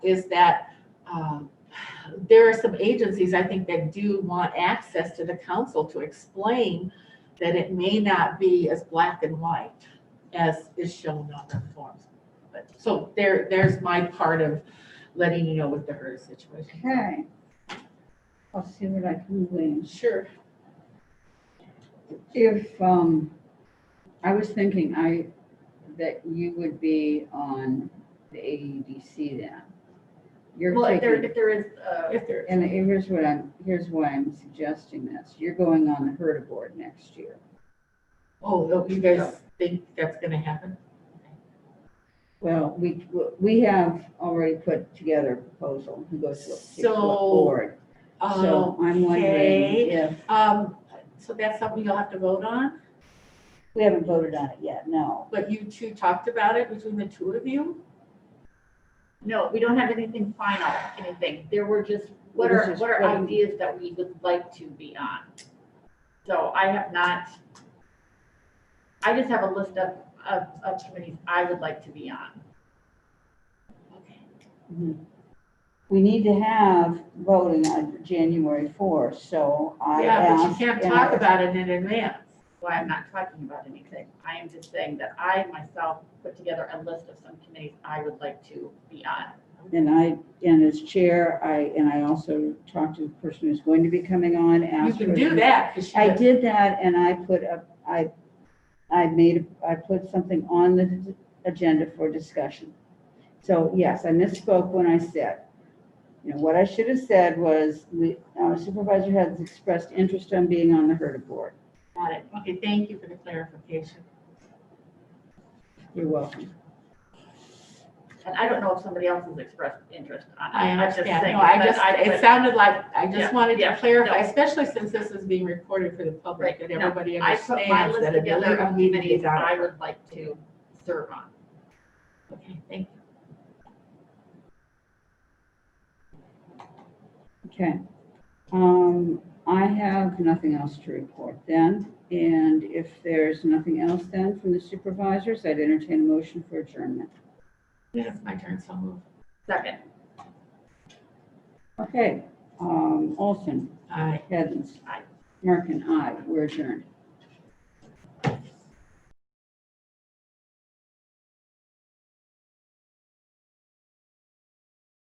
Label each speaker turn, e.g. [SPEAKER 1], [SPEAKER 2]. [SPEAKER 1] is that um, there are some agencies, I think, that do want access to the council to explain that it may not be as black and white as is shown on the forms. But, so there, there's my part of letting you know what the HERS situation. is.
[SPEAKER 2] Okay. I'll see what I can arrange.
[SPEAKER 1] Sure.
[SPEAKER 2] If, um, I was thinking I, that you would be on the AEDC then. You're
[SPEAKER 3] Well, if there,
[SPEAKER 2] taking,
[SPEAKER 3] if there is, uh,
[SPEAKER 1] If there,
[SPEAKER 2] and here's what I'm, here's why I'm suggesting this. You're going on the Herta Board next year.
[SPEAKER 1] oh, you guys think that's gonna happen?
[SPEAKER 2] Well, we, we have already put together a proposal who goes to a particular
[SPEAKER 1] So,
[SPEAKER 2] board. So I'm wondering
[SPEAKER 1] Okay,
[SPEAKER 2] if,
[SPEAKER 1] um, so that's something you'll have to vote on,
[SPEAKER 2] we haven't voted on it yet, no.
[SPEAKER 1] but you two talked about it between the two of you?
[SPEAKER 3] no, we don't have anything final, anything. There were just, what
[SPEAKER 2] This
[SPEAKER 3] are,
[SPEAKER 2] is
[SPEAKER 3] what are
[SPEAKER 2] what-
[SPEAKER 3] ideas that we would like to be on? So I have not, I just have a list of, of, of committees I would like to be on.
[SPEAKER 1] Okay.
[SPEAKER 2] We need to have voting on January fourth, so I
[SPEAKER 1] Yeah, but you
[SPEAKER 2] asked
[SPEAKER 1] can't
[SPEAKER 2] and
[SPEAKER 1] talk
[SPEAKER 2] I-
[SPEAKER 1] about it in advance.
[SPEAKER 3] Why I'm not talking about anything. I am just saying that I myself put together a list of some committees I would like to be on.
[SPEAKER 2] And I, and as chair, I, and I also talked to the person who's going to be coming on,
[SPEAKER 1] You
[SPEAKER 2] asked.
[SPEAKER 1] can
[SPEAKER 2] her-
[SPEAKER 1] do that, 'cause
[SPEAKER 2] I
[SPEAKER 1] you-
[SPEAKER 2] did that and I put up, I, I made, I put something on the agenda for discussion. So yes, I misspoke when I said, you know, what I should have said was, we, our supervisor has expressed interest in being on the HERDA board.
[SPEAKER 1] got it. Okay, thank you for the clarification.
[SPEAKER 2] You're welcome.
[SPEAKER 3] And I don't know if somebody else has expressed interest on it.
[SPEAKER 1] I
[SPEAKER 3] I'm just
[SPEAKER 1] understand.
[SPEAKER 3] saying,
[SPEAKER 1] No, I
[SPEAKER 3] but
[SPEAKER 1] just,
[SPEAKER 3] I- but
[SPEAKER 1] it sounded like, I
[SPEAKER 3] Yeah,
[SPEAKER 1] just wanted to
[SPEAKER 3] yeah,
[SPEAKER 1] clarify,
[SPEAKER 3] no.
[SPEAKER 1] especially since this is being recorded for the public,
[SPEAKER 3] Right,
[SPEAKER 1] that
[SPEAKER 3] no,
[SPEAKER 1] everybody
[SPEAKER 3] I put my
[SPEAKER 1] understands
[SPEAKER 3] list
[SPEAKER 1] that a
[SPEAKER 3] together
[SPEAKER 1] deliberative
[SPEAKER 3] of
[SPEAKER 1] meeting
[SPEAKER 3] committees
[SPEAKER 1] is on.
[SPEAKER 3] I would like to serve on.
[SPEAKER 1] Okay, thank you.
[SPEAKER 2] Okay. Um, I have nothing else to report then. And if there's nothing else then from the supervisors, I'd entertain a motion for adjournment.
[SPEAKER 1] It's my turn, so move.
[SPEAKER 3] Second,
[SPEAKER 2] Okay, um, Olson,
[SPEAKER 1] Aye.
[SPEAKER 2] Heathens.
[SPEAKER 3] Aye.
[SPEAKER 2] Merkin, aye, we're adjourned.